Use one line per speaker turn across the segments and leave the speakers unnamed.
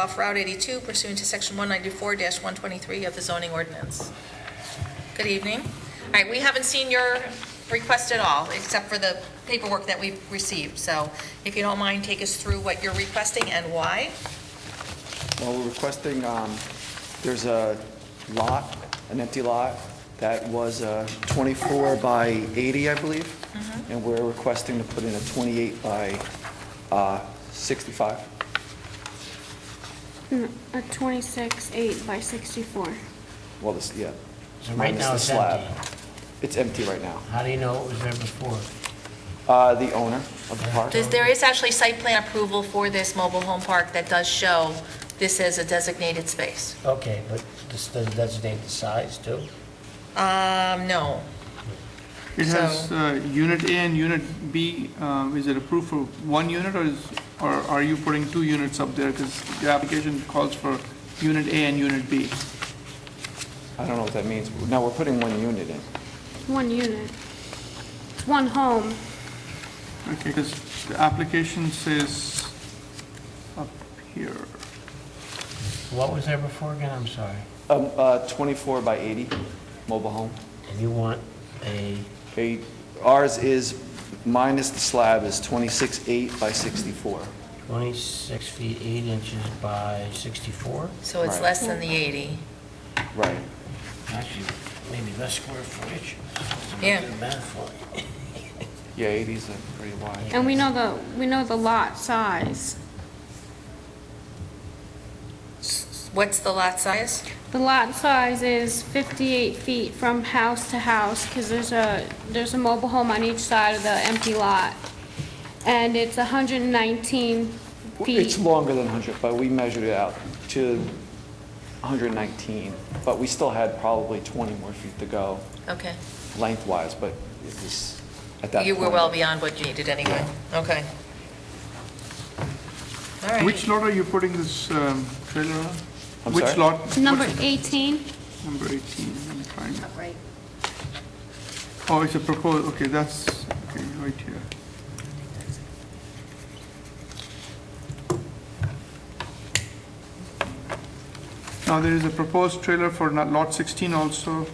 off Route 82 pursuant to Section 194-123 of the zoning ordinance. Good evening. All right, we haven't seen your request at all, except for the paperwork that we've received. So if you don't mind, take us through what you're requesting and why.
Well, we're requesting, um, there's a lot, an empty lot, that was uh, 24 by 80, I believe, and we're requesting to put in a 28 by uh, 65.
A 26, 8 by 64.
Well, this, yeah.
So right
minus
now
the
it's
slab.
empty.
It's empty right now.
How do you know it was there before?
Uh, The owner of the park,
There's- There is actually site plan approval for this mobile home park that does show this as a designated space.
Okay, but this doesn't designate the size too?
Um, no.
It
So-
has uh, unit A and unit B. um, Is it approved for one unit or is, or are you putting two units up there? Because the application calls for unit A and unit B.
I don't know what that means. No, we're putting one unit in.
One unit. It's one home.
Okay, because the application says up here,
What was there before again? I'm sorry.
Um, uh, 24 by 80, mobile home.
And you want a,
Okay, Ours is, minus the slab, is 26 8 by 64.
26 feet 8 inches by 64?
So it's
Right.
less than the 80.
Right.
Actually, maybe less square footage.
Yeah.
Do the math for you.
Yeah, 80s are pretty wide.
And we know the, we know the lot size.
What's the lot size?
The lot size is 58 feet from house to house, because there's a, there's a mobile home on each side of the empty lot. And it's 119
It's
feet.
longer than 100, but we measured it out to 119, but we still had probably 20 more feet to go
Okay.
lengthwise, but it was at that point.
You were well beyond what you needed anyway. Okay. All right.
which lot are you putting this um, trailer on?
I'm
Which
sorry?
lot?
Number
What's-
18,
Number 18, I'm trying to- Oh, it's a proposed, okay, that's, okay, right here. Now, there is a proposed trailer for not- lot 16 also.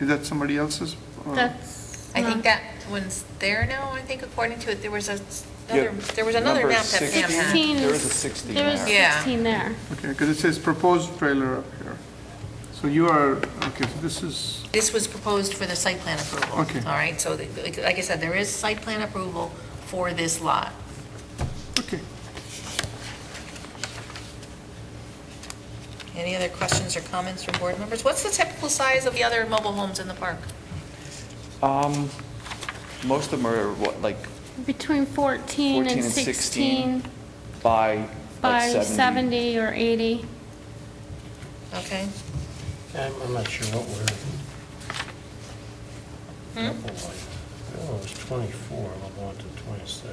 Is that somebody else's? or-
that's.
I think
not-
that one's there now, I think according to it, there was a, s- another-
Yeah,
there was another
number
map that Pam had.
16
There is a 16
There is
there.
Yeah.
16 there.
Okay, because it says proposed trailer up here. So you are, okay, so this is,
This was proposed for the site plan approval.
Okay.
All right, so the- like like I said, there is site plan approval for this lot.
okay.
Any other questions or comments from board members? What's the typical size of the other mobile homes in the park?
Um, most of them are what, like
Between 14
14
and 16
by,
by
like 70.
70 or 80.
Okay,
I'm, I'm not sure what we're. Couple like- Oh, it was 24, we're going to 26.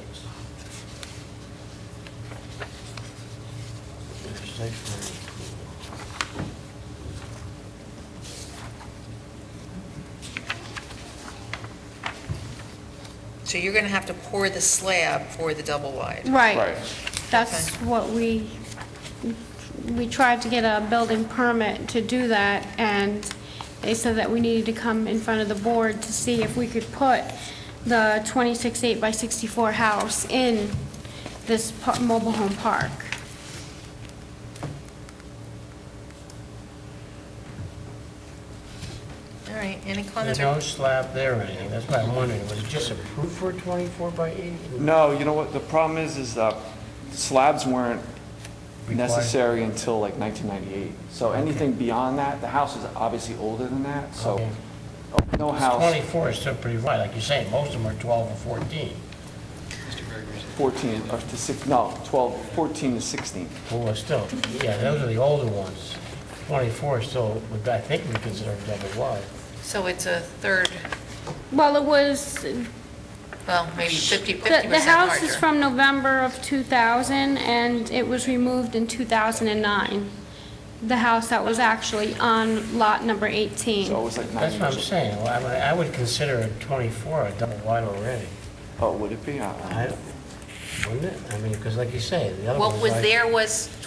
There's site plan approval.
so you're going to have to pour the slab for the double wide.
Right.
Right.
That's
Okay.
what we, we tried to get a building permit to do that, and they said that we needed to come in front of the board to see if we could put the 26 8 by 64 house in this pa- mobile home park.
All right, any
There's
comments? or-
no slab there or anything, that's why I'm wondering, was it just approved for 24 by 80?
No, you know what, the problem is, is uh, slabs weren't
Required.
necessary until like 1998. So anything beyond that, the house is obviously older than that, so
Okay.
no house,
24 is still pretty wide, like you say, most of them are 12 or 14.
14 or to 6, no, 12, 14 to 16.
Well, still, yeah, those are the older ones. 24 is still, would- I think we consider double wide.
So it's a third,
Well, it was,
well, maybe 50, 50% larger.
The, the house is from November of 2000, and it was removed in 2009. The house that was actually on lot number
So it
18.
was like 90
That's
years
what I'm
old.
saying, Well, I would- I would consider a 24 a double wide already.
Oh, would it be? I- I don't know.
I- Wouldn't it? I mean, because like you say, the other ones...
What was
like-
there was